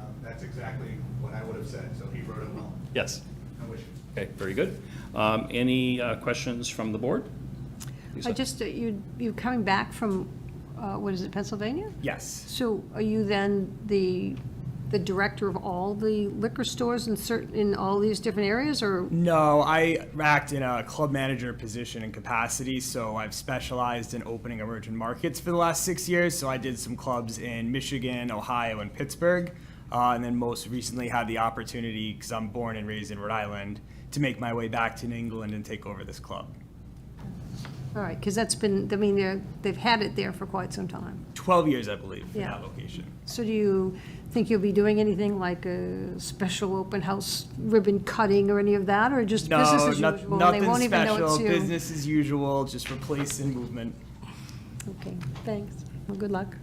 Um, exactly what I would have said, so he wrote it well. Yes. No issues. Okay, very good. Um, Any uh, questions from the board? I Lisa? just, uh, you, you coming back from, uh, what is it, Pennsylvania? Yes. So are you then the, the director of all the liquor stores in certain, in all these different areas, or? No, I act in a club manager position and capacity, so I've specialized in opening emerging markets for the last six years. So I did some clubs in Michigan, Ohio, and Pittsburgh. Uh, and then most recently had the opportunity, because I'm born and raised in Rhode Island, to make my way back to New England and take over this club. All right, because that's been, I mean, they're, they've had it there for quite some time. 12 years, I believe, for Yeah. that location. So do you think you'll be doing anything like a special open house ribbon cutting or any of that, or just business No, as not- usual? and They nothing won't even know special, it's you. business as usual, just replacing movement. Okay, thanks. Well, good luck.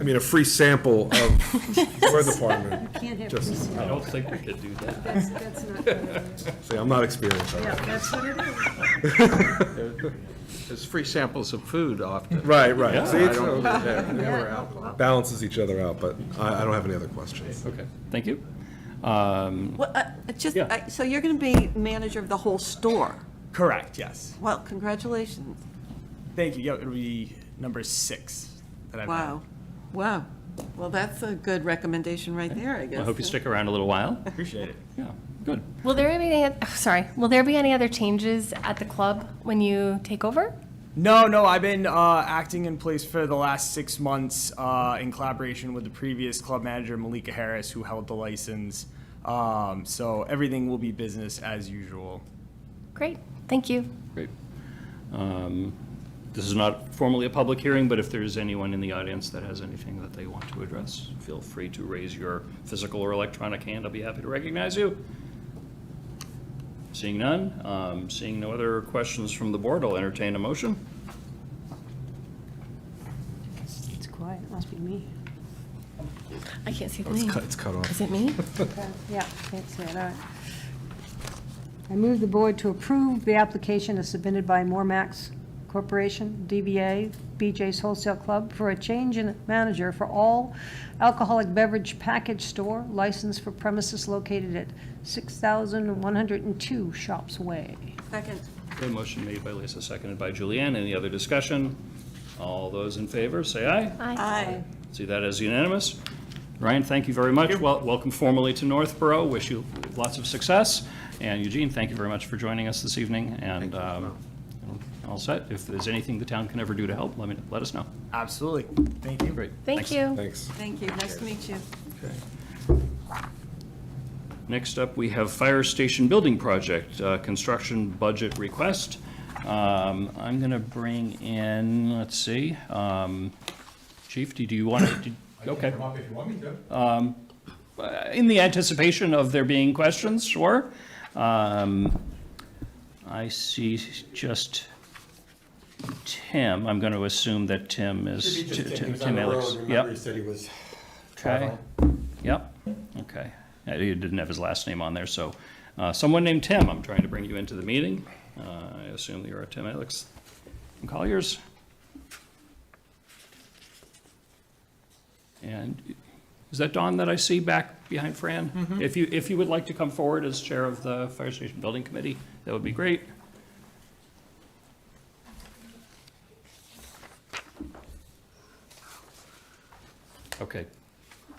I mean, a free sample of your department. Can't have, Just- that's, I don't think we could do that. that's not, no, See, I'm not experienced. that's what it is. There's free samples of food often. Right, right. See, I don't- it yeah. balances each other out, but I, I don't have any other questions. Okay, thank you. Um, Well, uh, it's just, Yeah. I- so you're going to be manager of the whole store. Correct, yes. Well, congratulations. Thank you. Yeah, it'll be number six that I've had. Wow. Wow. Well, that's a good recommendation right there, I guess. I hope you stick around a little while. Appreciate it. Yeah, good. Will there be any, oh, sorry, will there be any other changes at the club when you take over? No, no, I've been uh, acting in place for the last six months uh, in collaboration with the previous club manager, Malika Harris, who held the license. Um, so everything will be business as usual. Great, thank you. Great. Um, This is not formally a public hearing, but if there's anyone in the audience that has anything that they want to address, feel free to raise your physical or electronic hand. I'll be happy to recognize you. Seeing none, um, seeing no other questions from the board, I'll entertain a motion. It's quiet, must be me. I can't see the It's name. cut, it's cut off. Is it me? Yeah, can't see it, all right. I move the board to approve the application as submitted by Mormax Corporation, DBA, BJ's Wholesale Club, for a change in manager for all alcoholic beverage package store licensed for premises located at 6,102 Shops Way. Second. Okay, motion made by Lisa, seconded by Julianne. Any other discussion? All those in favor, say aye. Aye. Aye. See that as unanimous. Ryan, thank you very much. Wel- Welcome formally to Northborough. Wish you lots of success. And Eugene, thank you very much for joining us this evening. And um, all set. If there's anything the town can ever do to help, let me, let us know. Absolutely. Thank you. Great. Thank Thanks. you. Thanks. Thank you. Nice to meet you. Next up, we have Fire Station Building Project, uh, construction budget request. Um, I'm going to bring in, let's see, um, Chief, do do you want to? Okay. Um, Come up if you want me to. in the anticipation of there being questions, sure. Um, I see just Tim, I'm going to assume that Tim is, Should be just Tim, Tim he was on Tim the Alex. road, remember he Yep, said he was okay, traveling. yep, okay. Uh, He didn't have his last name on there, so uh, someone named Tim, I'm trying to bring you into the meeting. Uh, I assume you're a Tim Alex from Colliers. And is that Don that I see back behind Fran? If you, if you would like to come forward as chair of the Fire Station Building Committee, that would be great. Okay.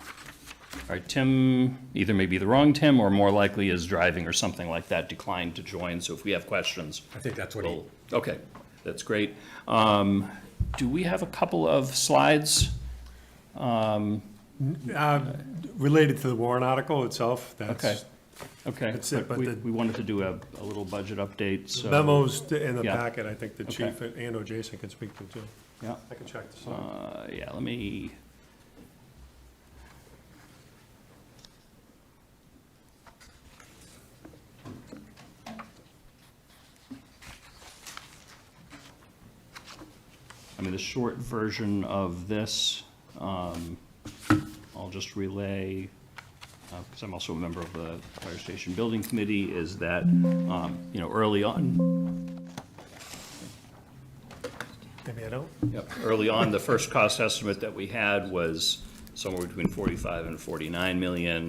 All right, Tim, either may be the wrong Tim, or more likely is driving or something like that, declined to join, so if we have questions. I think that's what he, we'll- Okay, that's great. Um, Do we have a couple of slides? Um, Uh, Related to the warrant article itself, Okay, that's okay. That's it, but we- the- We wanted to do a, a little budget update, so. memos in the Yeah. packet, I think the Okay. chief and or Jason can speak to too. Yeah, I can check this out. uh, yeah, let me. I mean, the short version of this, um, I'll just relay, because I'm also a member of the Fire Station Building Committee, is that, um, you know, early on, Maybe I don't. Yep, early on, the first cost estimate that we had was somewhere between 45 and 49 million.